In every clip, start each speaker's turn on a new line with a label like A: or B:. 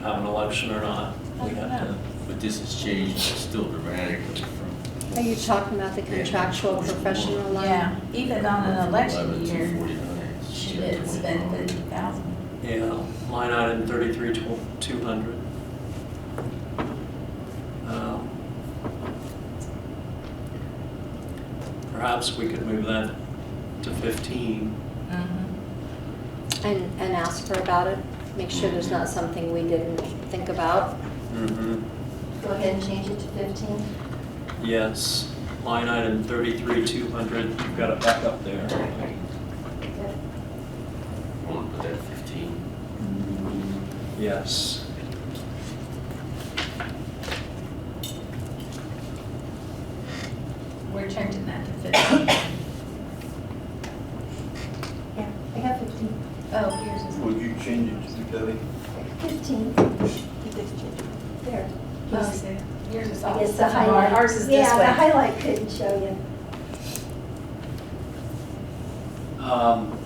A: have an election or not.
B: Oh,
A: We have to,
C: But this has changed still dramatically from.
D: Are you talking about the contractual professional line?
E: Yeah, even on an election
C: 11 to
E: year,
C: 49.
E: she did spend fifty thousand.
A: yeah, line item thirty-three two hundred. Um, Perhaps we could move that to fifteen.
E: Mm-hmm.
D: And, and ask her about it? Make sure there's not something we didn't think about?
A: Mm-hmm.
B: Go ahead and change it to 15.
A: Yes, line item thirty-three two hundred, you've got it back up there.
B: Okay.
C: Want to put that 15?
A: Yes.
E: We're changing that to fifty.
B: Yeah, I got 15.
E: Oh, here's his.
F: Would you change it to Debbie?
B: 15. There.
E: Oh, see, Yours is
B: I
E: off.
B: guess the highlight.
E: Ours is this
B: Yeah, the
E: way.
B: highlight couldn't show you.
A: Um,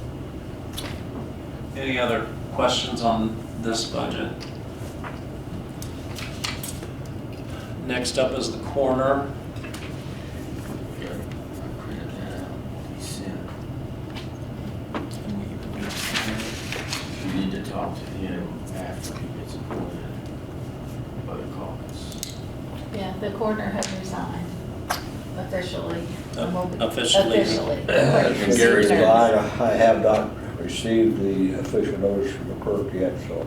A: Any other questions on this budget? Next up is the corner.
C: Yeah, I printed that out, he sent. You need to talk to him after he gets appointed by the caucus.
E: Yeah, the coroner has resigned officially. and will be-
A: Uh, Officially.
E: Officially.
C: And Gary's
F: Well,
C: gone.
F: I, I have not received the official notice from the clerk yet, so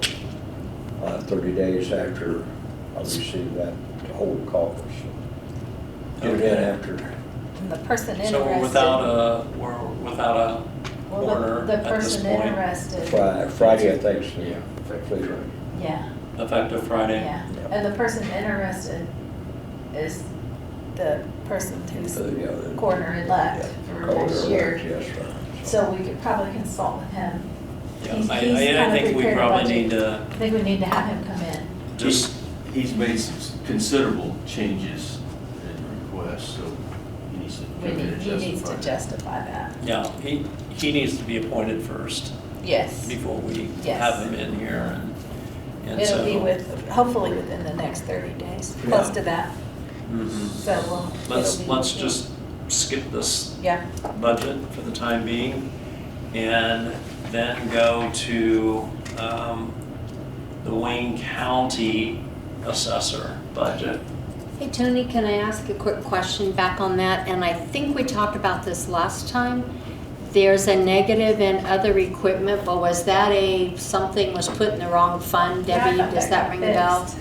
F: I'll have thirty days after I receive that to hold the caucus. Get it in after,
E: And The person interested.
A: So we're without a, we're without a
E: well, the-
A: corner at
E: The
A: this
E: person
A: point,
E: interested,
F: Fri- Friday, I think, so.
C: Yeah.
F: Please, right.
E: yeah,
A: effective Friday.
E: yeah. And the person interested is the person who's
F: Uh, yeah, the-
E: coroner elect for
F: Call
E: next
F: her,
E: year.
F: Yes, right.
E: So we could probably consult with him.
A: Yeah,
E: He's-
A: I-
E: he's
A: I, I
E: kinda
A: think we
E: prepared a
A: probably
E: budget.
A: need to
E: I think we need to have him come in.
A: just,
C: He's made some considerable changes and requests, so he needs to come
E: We
C: in
E: need,
C: and
E: he needs
C: justify.
E: to justify that.
A: yeah, he, he needs to be appointed first
E: Yes.
A: before we
E: Yes.
A: have him in here and, and so.
E: It'll be with, hopefully within the next thirty days, close
A: Yeah.
E: to that,
A: Mhm.
E: so we'll.
A: Let's,
E: it'll be-
A: let's just skip this
E: Yeah,
A: budget for the time being and then go to um, the Wayne County Assessor budget.
D: Hey, Tony, can I ask a quick question back on that? And I think we talked about this last time. There's a negative in other equipment, but was that a, something was put in the wrong fund?
E: Yeah, I
D: Debbie,
E: thought
D: does
E: that
D: that
E: got
D: ring a bell?
E: fixed.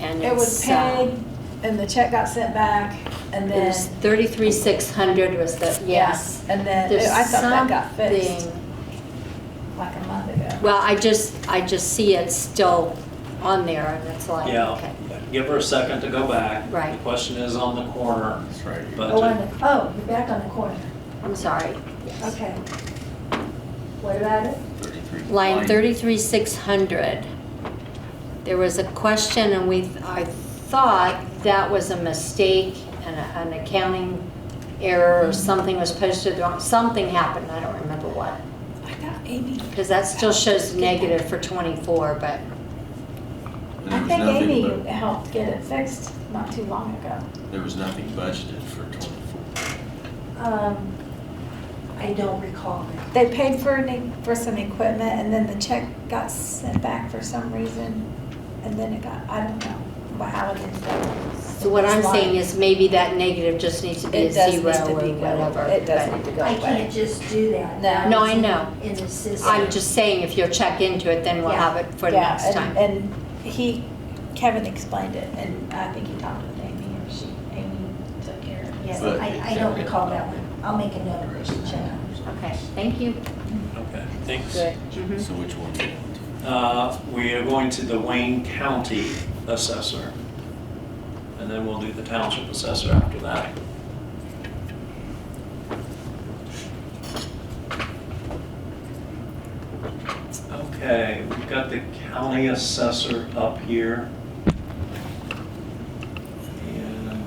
D: And
E: it was
D: it's, uh,
E: paid, and the check got sent back, and
D: It
E: then,
D: was thirty-three, six hundred was the, yes.
E: yes, and then,
D: There's
E: I thought that got fixed
D: something-
E: like a month ago.
D: Well, I just, I just see it still on there and it's like, okay.
A: Yeah, give her a second to go back.
D: Right.
A: The question is on the corner
C: That's right. here.
A: budget.
B: Oh, on the, oh, you're back on the corner.
D: I'm sorry.
B: Okay. What about it?
C: 33.
D: Line thirty-three, six hundred. There was a question and we, I thought that was a mistake and a- an accounting error or something was posted wrong, something happened, I don't remember what.
E: I thought Amy,
D: Because that still shows negative for twenty-four, but
C: And there
E: I
C: was
E: think
C: nothing
E: Amy
C: bu-
E: helped get it fixed not too long ago.
C: There was nothing budgeted for twenty-four.
B: Um, I don't recall.
E: They paid for, an e- for some equipment, and then the check got sent back for some reason, and then it got, I don't know wha- how it ended up.
D: So what I'm saying is maybe that negative just needs to be
E: It
D: a
E: does
D: zero
E: need to
D: or
E: be go-
D: whatever.
E: It does
D: but
E: need to go
B: I can't
E: away.
B: just do that.
E: No.
D: No, I know.
B: In the system.
D: I'm just saying if you'll check into it, then we'll
B: Yeah.
D: have it for
E: Yeah,
D: next
E: and-
D: time.
E: And he, Kevin explained it, and I think he talked with Amy, or she, Amy took care of it.
B: Yes,
C: But
B: I, I don't recall that one. I'll make a note of it, check.
D: Okay, thank you.
A: Okay, thanks.
D: Mhm.
C: So which one do you want to?
A: Uh, We are going to the Wayne County Assessor. And then we'll do the Township Assessor after that. Okay, we've got the County Assessor up here. And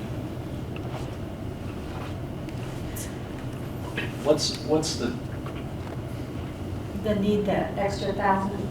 A: What's, what's the
E: The need that extra thousand